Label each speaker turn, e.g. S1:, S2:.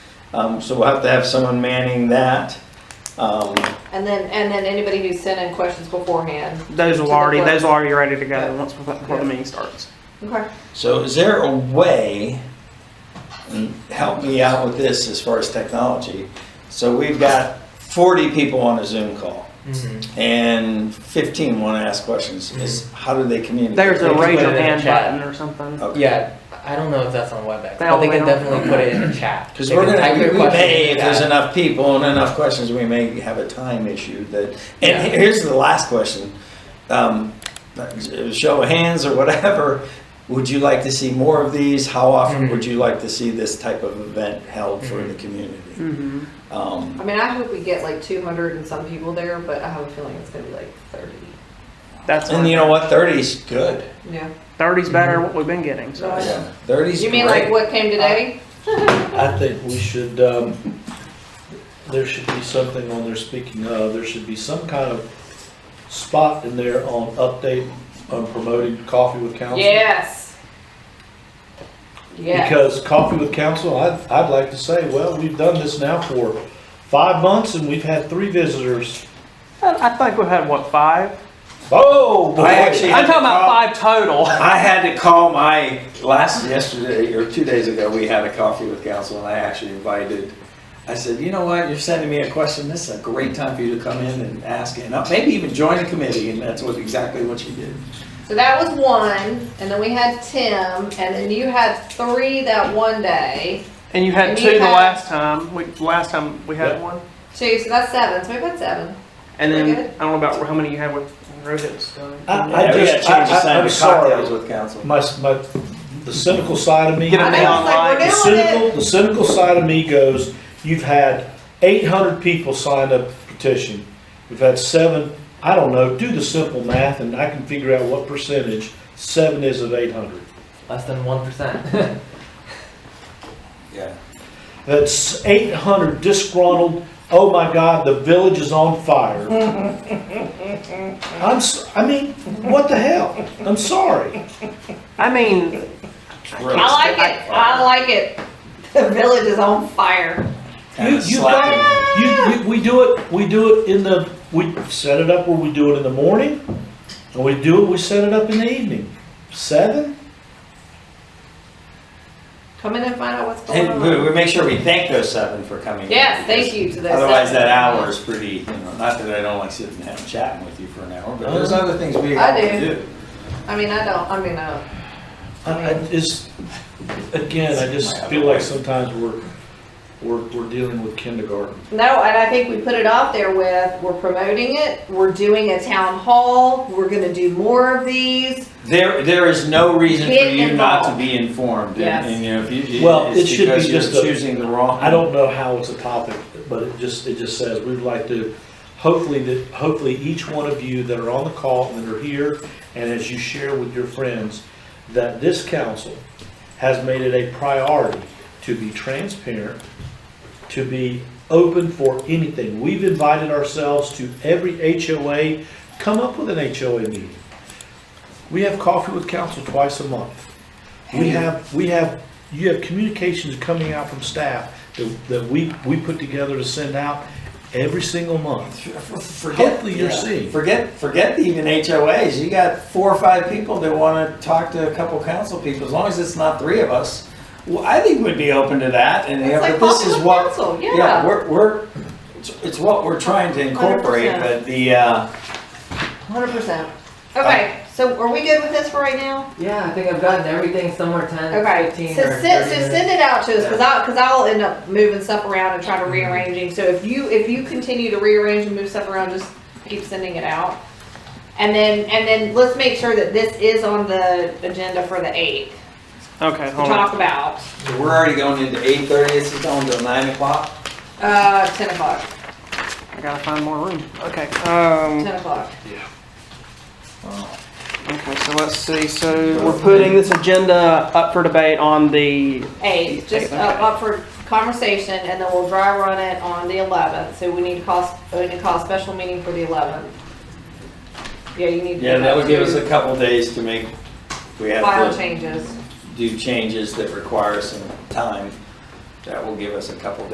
S1: Um, so we'll have to have someone manning that. Um,
S2: And then, and then anybody who sent in questions beforehand.
S3: Those
S2: To
S3: will
S2: the
S3: already,
S2: clerk.
S3: those are already ready to go once before before the meeting starts.
S2: Okay.
S1: so is there a way, and help me out with this as far as technology. So we've got forty people on a Zoom call Mm-hmm. and fifteen want to ask questions. Is, how do they communicate?
S3: There's a
S4: can put
S3: raise
S4: it
S3: your
S4: in the
S3: hand
S4: chat.
S3: button or something.
S1: Okay.
S4: Yeah, I don't know if that's on WebEx,
S3: They
S4: but they
S3: all- they
S4: can
S3: don't-
S4: definitely put it in the chat.
S1: Because
S4: They
S1: we're
S4: can
S1: gonna,
S4: type
S1: we
S4: their
S1: we
S4: question
S1: may,
S4: in
S1: if
S4: the
S1: there's
S4: chat.
S1: enough people and enough questions, we may have a time issue that,
S4: Yeah.
S1: and here's the last question. Um, Show of hands or whatever, would you like to see more of these? How often
S4: Mhm.
S1: would you like to see this type of event held for the community?
S3: Mhm.
S2: Mm-hmm.
S1: Um,
S2: I mean, I hope we get like two hundred and some people there, but I have a feeling it's gonna be like thirty.
S3: That's
S1: And you know what, thirty's good.
S2: Yeah.
S3: thirty's better what we've been getting. So
S2: Right.
S1: Yeah, Thirty's
S2: You mean like
S1: great.
S2: what came today?
S5: I think we should, um, there should be something on there, speaking of, there should be some kind of spot in there on update on promoting coffee with council.
S2: Yes. Yeah.
S5: Because coffee with council, I'd, I'd like to say, well, we've done this now for five months and we've had three visitors.
S3: Uh, I I think we've had what five?
S5: Oh, boy.
S1: I actually-
S3: I'm talking about five total.
S1: I had to call my last yesterday or two days ago. We had a coffee with council, and I actually invited. I said, you know what? You're sending me a question. This is a great time for you to come in and ask, and uh, maybe even join a committee. And that's what exactly what you did.
S2: So that was one, and then we had Tim, and then you had three that one day.
S3: And you had
S2: And
S3: two
S2: you
S3: the
S2: had-
S3: last time. We, last time we had
S5: Yeah.
S3: one.
S2: Two, so that's seven. So we've had seven.
S3: And
S2: Pretty
S3: then
S2: good.
S3: I don't know about how many you had with Rohit's. uh,
S5: I- I
S1: Yeah, we
S5: just-
S1: had changed the
S5: I- I-
S1: sign
S5: I'm
S1: to
S5: sorry.
S1: cocktails with council.
S5: My, my, the cynical side of me.
S3: Get a
S2: I know, it's like we're
S3: online,
S5: The
S2: doing it.
S5: cynical, the cynical side of me goes, you've had eight hundred people sign up for petition. We've had seven, I don't know, do the simple math and I can figure out what percentage seven is of eight hundred.
S4: Less than one percent.
S1: Yeah.
S5: That's eight hundred disgruntled, oh my God, the village is on fire. I'm, s- I mean, what the hell? I'm sorry.
S3: I mean,
S2: I like it. I like it. The village is on fire.
S5: You, you got, you, we, we do it, we do it in the, we set it up where we do it in the morning, and we do it, we set it up in the evening. Seven?
S2: Come in and find out what's going
S1: And we,
S2: on.
S1: we make sure we thank those seven for coming. in,
S2: Yes,
S1: because
S2: thank you to those
S1: Otherwise,
S2: seven.
S1: that hour is pretty. You know, not that I don't like sitting and having chatting with you for an hour, but there's other things we
S2: I
S1: have to
S2: do.
S1: do.
S2: I mean, I don't. I mean, uh,
S5: I, I just, again, I just feel like sometimes we're, we're, we're dealing with kindergarten.
S2: no. And I think we put it out there with we're promoting it. We're doing a town hall. We're going to do more of these.
S1: There, there is no reason for
S2: Get
S1: you not to
S2: involved.
S1: be informed,
S2: Yes.
S1: and, and, you know, if you,
S5: Well, it
S1: it's
S5: should be
S1: because you're
S5: just a-
S1: choosing the wrong.
S5: I don't know how it's a topic, but it just, it just says, we'd like to, hopefully that, hopefully each one of you that are on the call and that are here, and as you share with your friends, that this council has made it a priority to be transparent, to be open for anything. We've invited ourselves to every HOA, come up with an HOA meeting. We have coffee with council twice a month. We have, we have, you have communications coming out from staff that, that we, we put together to send out every single month.
S1: Forget,
S5: Hopefully you're
S1: yeah,
S5: seeing.
S1: Forget, forget even HOAs. You got four or five people that want to talk to a couple council people. As long as it's not three of us, well, I think we'd be open to that. And
S2: It's
S1: yeah,
S2: like
S1: but this is
S2: popular
S1: what
S2: council, yeah.
S1: we're, we're it's, it's what we're trying to incorporate.
S2: 100%.
S1: But the uh,
S2: Hundred percent.
S1: Um,
S2: Okay. So are we good with this for right now?
S4: Yeah, I think I've gotten everything somewhere ten,
S2: Okay,
S4: fifteen,
S2: so send,
S4: or thirty
S2: so
S4: minutes. Mm-hmm.
S2: send it out to us, cause I, cause I'll end up moving stuff around and trying to rearranging, so if you, if you continue to rearrange and move stuff around, just keep sending it out. And then, and then let's make sure that this is on the agenda for the eighth,
S3: okay,
S2: to
S3: hold on.
S2: talk about,
S1: we're already going into eight thirty. This is going to nine o'clock.
S2: uh, ten o'clock,
S3: I gotta find more room. Okay. Um,
S2: ten o'clock.
S3: okay. So let's see. So we're putting this agenda up for debate on the.
S2: Eight, just
S3: Eight,
S2: uh,
S3: okay.
S2: up for conversation, and then we'll dry run it on the eleventh, so we need to call, s- we need to call a special meeting for the eleventh. Yeah, you need to.
S1: Yeah, that would give us a couple days to make. We have
S2: File
S1: to
S2: changes.
S1: do changes that require some time. That will give us a couple